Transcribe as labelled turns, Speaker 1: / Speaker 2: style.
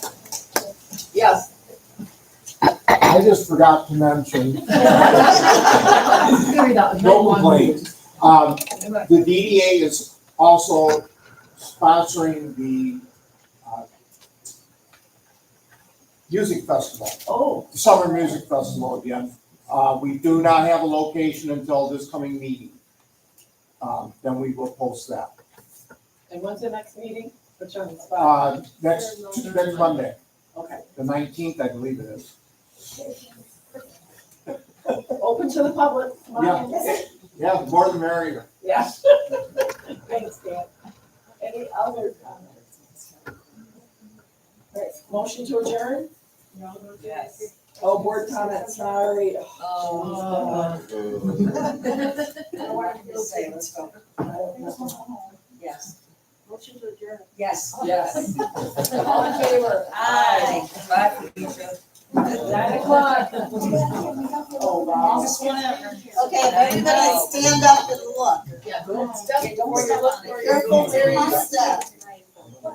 Speaker 1: Yes.
Speaker 2: I just forgot to mention,
Speaker 3: Very well,
Speaker 2: No complaint. um,
Speaker 3: one.
Speaker 2: the DDA is also sponsoring the, uh, music festival,
Speaker 1: Oh,
Speaker 2: the summer music festival again. Uh, we do not have a location until this coming meeting. Um, then we will post that,
Speaker 1: and when's the next meeting? Put you on the spot.
Speaker 2: uh, next, next Monday,
Speaker 1: Okay,
Speaker 2: the nineteenth, I believe it is.
Speaker 1: open to the public. Come on.
Speaker 2: Yeah, the more the merrier.
Speaker 1: Yes. Thanks, Dan. Any other comments? All right, Motion to adjourn?
Speaker 3: Yes.
Speaker 1: Oh, board comments, sorry. Oh, I don't know.
Speaker 4: Yes.
Speaker 3: Motion to adjourn.
Speaker 4: Yes.
Speaker 1: Yes. All in favor?
Speaker 4: Aye. Bye, Felicia.
Speaker 1: Nine o'clock. Oh, wow.
Speaker 5: Okay, if everybody stand up and look.
Speaker 1: Good stuff. Don't worry, look for your-
Speaker 5: Careful where you step.